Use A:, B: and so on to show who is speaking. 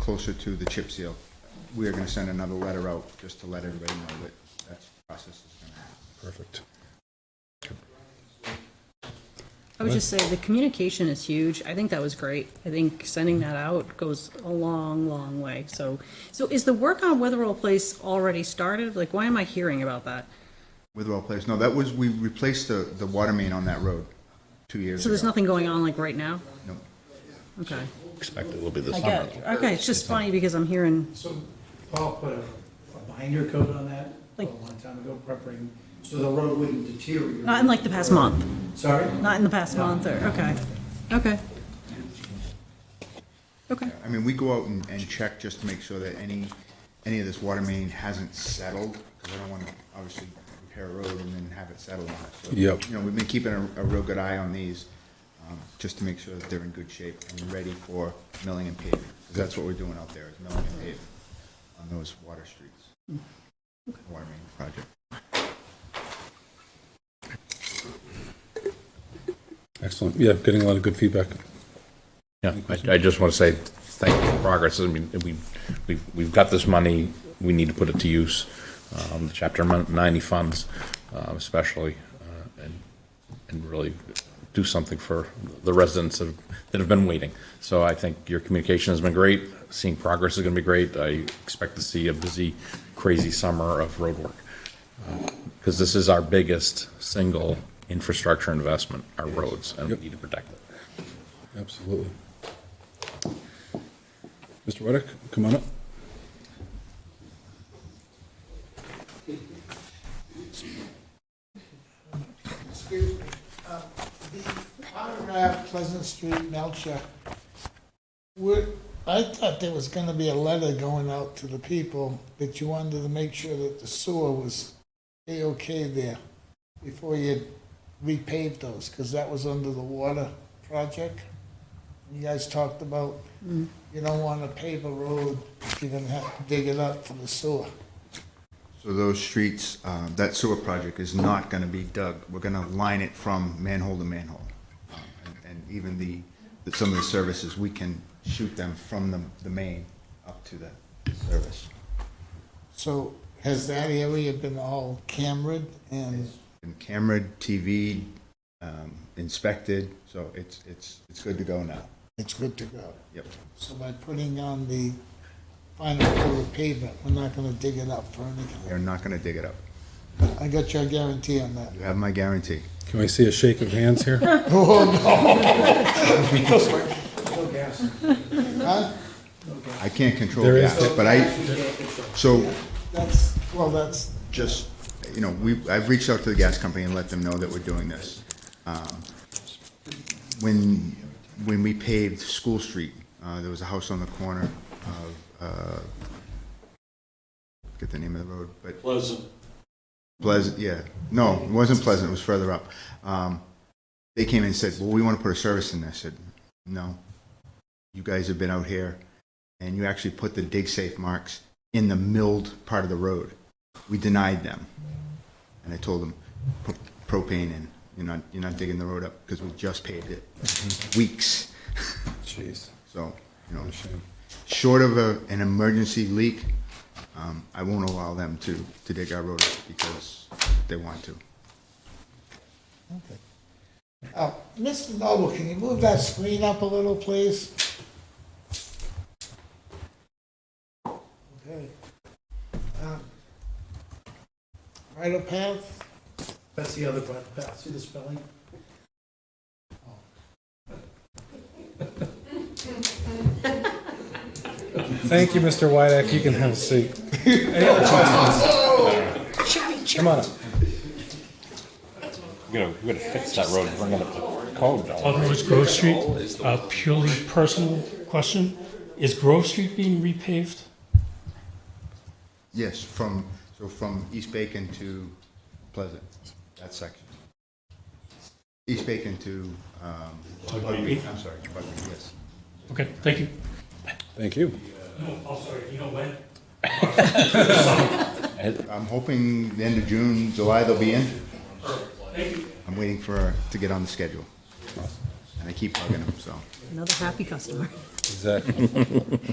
A: closer to the chip seal, we are gonna send another letter out just to let everybody know that that process is gonna happen.
B: Perfect.
C: I would just say the communication is huge. I think that was great. I think sending that out goes a long, long way. So, so is the work on Witherell Place already started? Like, why am I hearing about that?
A: With well placed, no, that was, we replaced the, the water main on that road two years
C: So
A: ago.
C: there's nothing going on like right now?
A: No.
C: Okay.
B: Expect it will be this
C: I
B: summer.
C: get it. Okay, it's just funny because I'm hearing,
D: So Paul put a a binder coat on that a
C: Like-
D: long time ago, preparing, so the road wouldn't deteriorate.
C: not in like the past month,
D: Sorry?
C: not in the past month or, okay, okay. Okay,
A: I mean, we go out and, and check just to make sure that any, any of this water main hasn't settled, because I don't wanna obviously repair a road and then have it settle on it. So,
B: Yep.
A: You know, we've been keeping a, a real good eye on these, um, just to make sure that they're in good shape and ready for milling and paving. 'Cause that's what we're doing out there, is milling and paving on those water streets. Water main project.
B: Excellent. Yeah, getting a lot of good feedback.
E: Yeah, I, I just want to say thank you for progress. I mean, we, we've, we've got this money, we need to put it to use. Um, the chapter mon- ninety funds, um, especially, uh, and, and really do something for the residents of, that have been waiting. So I think your communication has been great. Seeing progress is going to be great. I expect to see a busy, crazy summer of road work. Because this is our biggest single infrastructure investment, our roads, and we need to protect it.
B: Absolutely. Mr. Reddick, come on up.
F: Excuse me, uh, the autograph Pleasant Street Melcher, would, I thought there was gonna be a letter going out to the people that you wanted to make sure that the sewer was A-OK there before you repaved those, because that was under the water project. You guys talked about, you don't wanna pave a road if you're gonna have to dig it up for the sewer.
A: So those streets, uh, that sewer project is not gonna be dug. We're gonna line it from manhole to manhole. Um, and- And even the, the- some of the services, we can shoot them from the, the main up to the service.
F: So has that area been all cambered and?
A: And camera, TV, um, inspected, so it's, it's, it's good to go now.
F: It's good to go.
A: Yep.
F: So by putting on the final coat of pavement, we're not gonna dig it up for anything.
A: They're not gonna dig it up.
F: I got your guarantee on that.
A: You have my guarantee.
B: Can we see a shake of hands here?
D: No gas.
F: Huh?
A: I can't control
B: There is-
A: gas, but I,
D: Actually, yeah, it's a-
A: so
F: That's, well, that's,
A: just, you know, we, I've reached out to the gas company and let them know that we're doing this. Um, When, when we paved School Street, uh, there was a house on the corner of, uh, get the name of the road, but
G: Pleasant.
A: Pleasant, yeah. No, it wasn't Pleasant, it was further up. Um, they came in and said, well, we want to put a service in there. I said, no. You guys have been out here and you actually put the dig safe marks in the milled part of the road. We denied them. And I told them, put propane in. You're not, you're not digging the road up because we just paved it. Weeks.
B: Jeez,
A: So, you know,
B: what a shame.
A: short of a, an emergency leak, um, I won't allow them to, to dig our road up because they want to.
F: okay. Uh, Mr. Noble, can you move that screen up a little, please? Okay. Um, Right of path?
D: That's the other part, Pat, see the spelling?
B: Thank you, Mr. Wydeck. You can have a seat. Come on up.
E: We gotta, we gotta fix that road, bring it up to code, though.
G: Alderwood Grove Street, a purely personal question. Is Grove Street being repaved?
A: Yes, from, so from East Bacon to Pleasant, that section. East Bacon to, um, Bugbee, I'm sorry, Bugbee, yes.
G: Okay, thank you.
B: Thank you.
G: Oh, sorry, you know when?
A: I'm hoping the end of June, July, they'll be in. I'm waiting for, to get on the schedule. And I keep bugging them, so.
C: another happy customer.
B: Exactly.